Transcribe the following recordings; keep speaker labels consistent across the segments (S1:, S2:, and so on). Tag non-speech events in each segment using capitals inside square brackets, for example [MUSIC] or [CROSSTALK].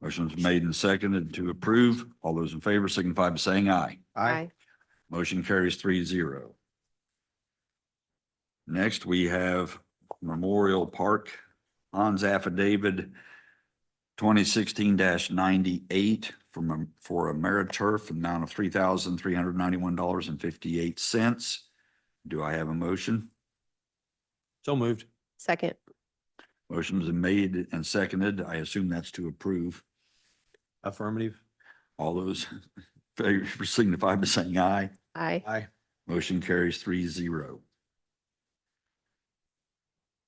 S1: Motion's made and seconded to approve. All those in favor signify by saying aye.
S2: Aye.
S1: Motion carries three zero. Next, we have Memorial Park Hans Affidavit twenty sixteen ninety-eight from, for AmeriTurf, amount of three thousand three hundred ninety-one dollars and fifty-eight cents. Do I have a motion?
S3: So moved.
S2: Second.
S1: Motion's been made and seconded. I assume that's to approve.
S3: Affirmative.
S1: All those [LAUGHS] in favor signify by saying aye.
S2: Aye.
S3: Aye.
S1: Motion carries three zero.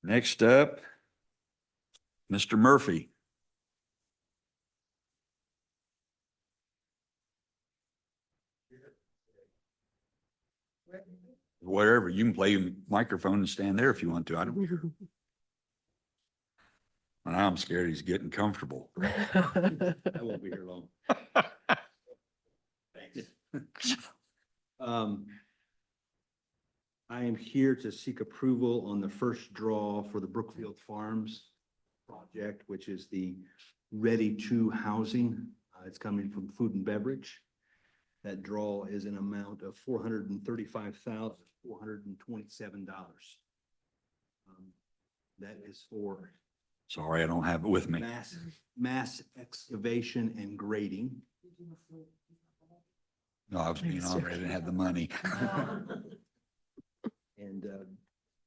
S1: Next up, Mr. Murphy. Whatever, you can play your microphone and stand there if you want to. I don't. And I'm scared he's getting comfortable. I won't be here
S4: [LAUGHS]
S1: long.
S4: Um, I am here to seek approval on the first draw for the Brookfield Farms project, which is the ready-to housing. Uh, It's coming from food and beverage. That draw is an amount of four hundred and thirty-five thousand, four hundred and twenty-seven dollars. Um, That is for
S1: Sorry, I don't have it with me.
S4: mass, mass excavation and grading.
S1: No, I was being
S2: Thanks,
S1: honest. I
S2: Jeff.
S1: didn't have the money.
S4: And uh,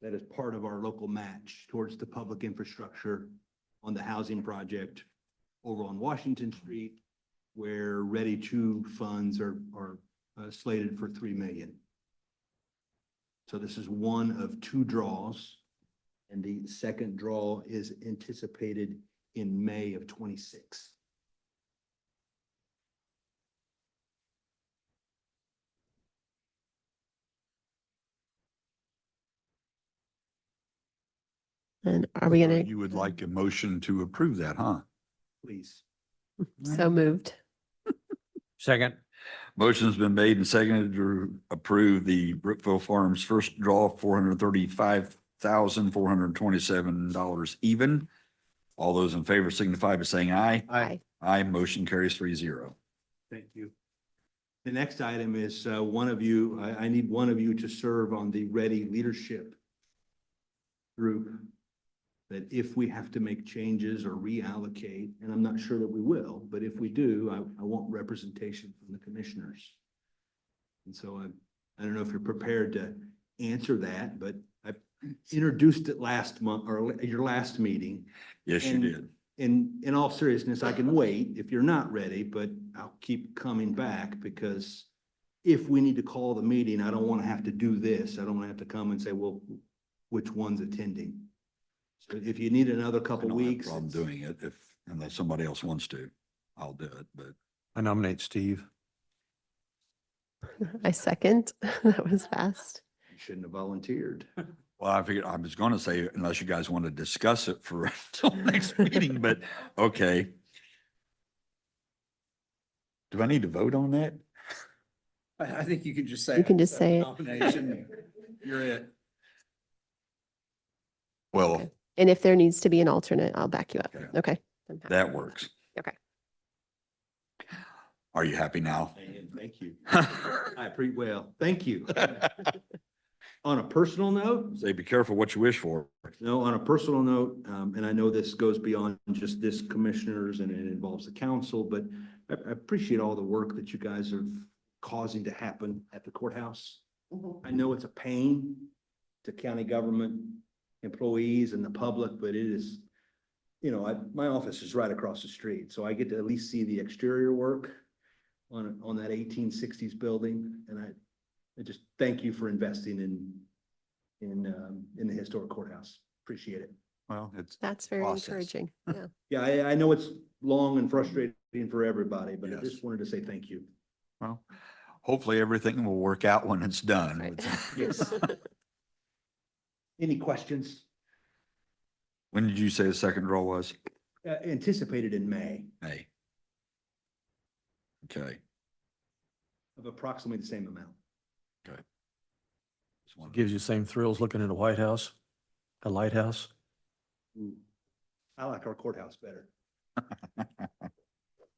S4: that is part of our local match towards the public infrastructure on the housing project over on Washington Street, where Ready to funds are, are uh, slated for three million. So this is one of two draws, and the second draw is anticipated in May of twenty-six.
S2: And are [LAUGHS] we gonna,
S1: You would like a motion to approve that, huh?
S4: Please.
S2: so moved.
S3: Second.
S1: Motion's been made and seconded to approve the Brookville Farms first draw, four hundred thirty-five thousand, four hundred twenty-seven dollars even. All those in favor signify by saying aye.
S2: Aye.
S1: Aye, motion carries three zero.
S4: Thank you. The next item is uh, one of you, I, I need one of you to serve on the Ready Leadership group. That if we have to make changes or reallocate, and I'm not sure that we will, but if we do, I, I want representation from the commissioners. And so I, I don't know if you're prepared to answer that, but I introduced it last month, or your last meeting.
S1: Yes, you
S4: And-
S1: did.
S4: In, in all seriousness, I can wait if you're not ready, but I'll keep coming back because if we need to call the meeting, I don't want to have to do this. I don't want to have to come and say, well, which one's attending? So if you need another
S1: I
S4: couple
S1: don't have a
S4: weeks.
S1: problem doing it if, unless somebody else wants to, I'll do it, but
S3: I nominate Steve.
S2: I second. [LAUGHS] That was fast.
S4: you Shouldn't
S5: [LAUGHS]
S4: have volunteered.
S1: Well, I figured, I was gonna say, unless you guys want to discuss it for [LAUGHS] until next meeting, but, okay. Do I need to vote on that?
S5: I, I think you can just say.
S2: You can just
S5: "Accept
S2: say it." [LAUGHS]
S5: nomination. You're it.
S1: Well,
S2: And if there needs to be an alternate, I'll back you up.
S1: Okay.
S2: Okay. I'm happy.
S1: that works.
S2: Ah, Okay.
S1: Are you happy
S2: [LAUGHS]
S1: now?
S4: And thank you. I pre, well,
S1: [LAUGHS]
S4: thank you. On a personal note,
S1: Say, be careful what you wish for.
S4: No, on a personal note, um, and I know this goes beyond just this commissioners and it involves the council, but I, I appreciate all the work that you guys are causing to happen at the courthouse. I know it's a pain to county government employees and the public, but it is, you know, I, my office is right across the street, so I get to at least see the exterior work on, on that eighteen sixties building, and I, I just thank you for investing in, in, um, in the historic courthouse. Appreciate it.
S1: Well, it's,
S2: That's very
S1: Process. [LAUGHS]
S2: encouraging. Yeah.
S4: Yeah, I, I know it's long and frustrating for everybody, but I
S1: Yes.
S4: just wanted to say thank you.
S1: well, hopefully everything will work out when it's done.
S2: Right. [LAUGHS]
S1: [LAUGHS]
S4: Yes. Any questions?
S1: When did you say the second draw was?
S4: Uh, anticipated in May
S1: May. Okay.
S4: of approximately the same amount.
S1: Just wanted to-
S3: Gives you the same thrills looking at a White House, a lighthouse.
S4: Mm. I like our courthouse better.